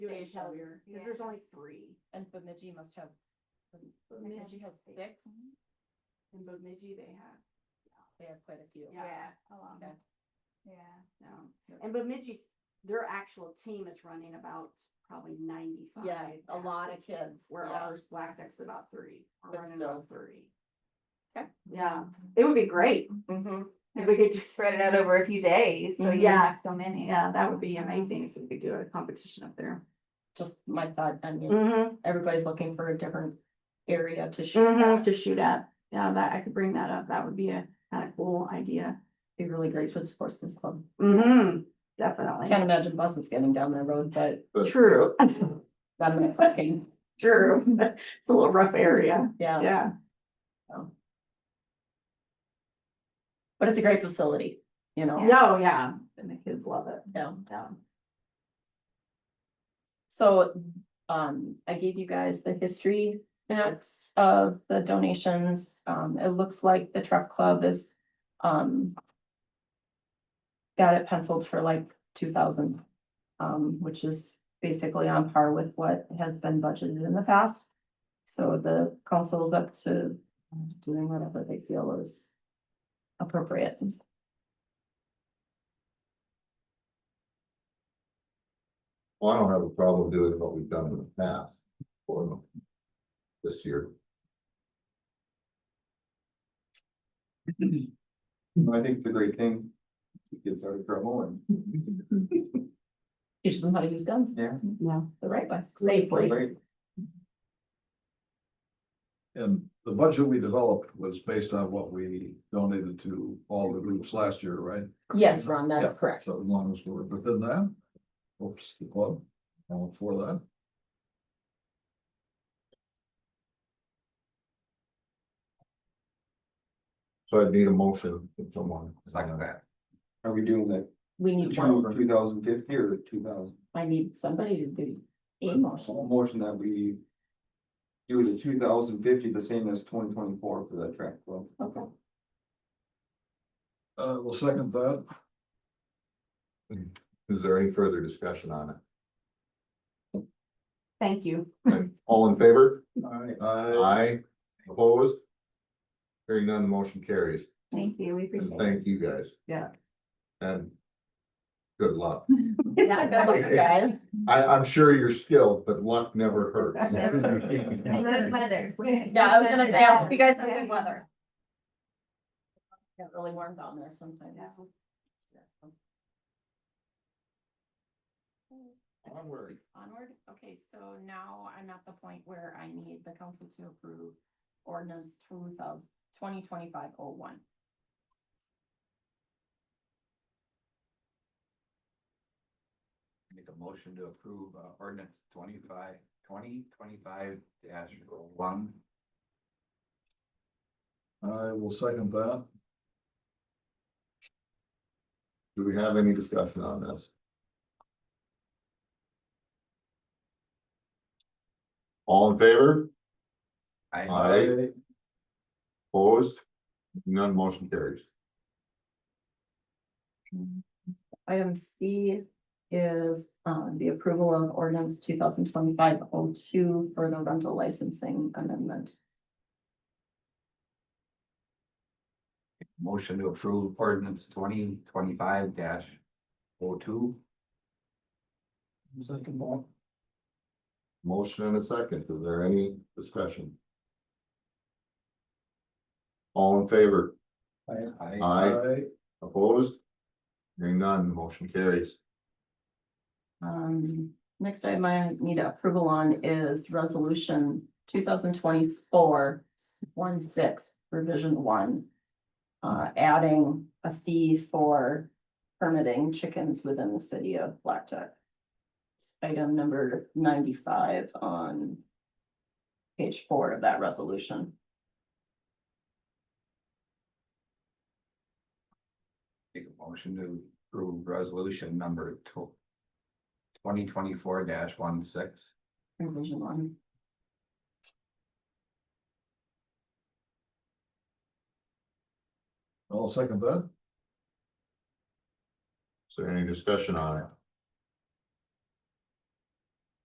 Page have- here, yeah. there's only three, And Bemidji must have, Bemidji has six, in Bemidji they have, they have quite a few. yeah, a lot. Okay. Yeah. no. Yeah. And Bemidji's, their actual team is running about probably ninety-five. Yeah, a lot of athletes, kids, Where yeah. ours, Black Duck's about three, we're But running still. about three. Okay. Yeah, it would be great Mm-hmm. if we could just, Spread it out over a few days, so you Yeah. have so many. yeah, that would be amazing if we could do a competition up there. Just my thought, I mean, Mm-hmm, everybody's looking for a different area to shoot at. To shoot at, yeah, that, I could bring that up, that would be a, kind of cool idea. Be really great for the sportsman's club. Mm-hmm, I definitely. can't imagine buses getting down that road, but True, that might fucking, true. It's a little rough area, yeah, yeah. but it's a great facility, you know? No, Oh, yeah, and the kids love it. Yeah. Yeah. So, um, I gave you guys the history facts of the donations. Um, it looks like the truck club is, um. Got it penciled for like two thousand, um, which is basically on par with what has been budgeted in the past. So the council is up to doing whatever they feel is appropriate. Well, I don't have a problem doing what we've done in the past for them this year. I think it's a great thing. It gets out of trouble and. Teach them how to use guns Yeah. Yeah. the right way. Safely. Great. And the budget we developed was based on what we donated to all the groups last year, right? Yes, Ron, that is Yeah, correct. So as long as we're within that, oops, the club, all for that. So I'd need a motion from someone. Second that. Are we doing that We need one. two thousand fifty or two thousand? I need somebody to do a motion. Motion that we. Do the two thousand fifty, the same as twenty twenty four for that track club. Okay. Uh, we'll second that. Is there any further discussion on Thank you. it? All in favor? Aye. Aye. Opposed? Hearing none, the motion carries. Thank you, we And appreciate it. thank you guys. Yeah. And good luck. Yeah, Good luck, Guys. I, I'm sure you're skilled, but luck never hurts. And Good weather. Yeah, I was gonna say, I hope you guys have good weather. Get really warm down there sometimes. Yeah. Onward. Onward, okay, so now I'm at the point where I need the council to approve ordinance two thousand, twenty twenty-five oh one. Make a motion to approve uh, ordinance twenty-five, twenty, twenty-five dash one. I will second that. Do we have any discussion on this? All in favor? I, Aye. Opposed? None motion carries. Item C is, um, the approval of ordinance two thousand twenty-five oh two for the rental licensing amendment. motion to approve ordinance twenty, twenty-five dash oh two. Second that. Motion and a second. Is there any discussion? All in favor? I, Aye. Opposed? Hearing none, motion carries. Um, next item I need approval on is resolution two thousand twenty-four one six, revision one. Uh, adding a fee for permitting chickens within the city of Black Duck. It's Item number ninety-five on page four of that resolution. make a motion to approve resolution number two. Twenty twenty-four dash one six. Revision one. I'll second that. Is there any discussion on it?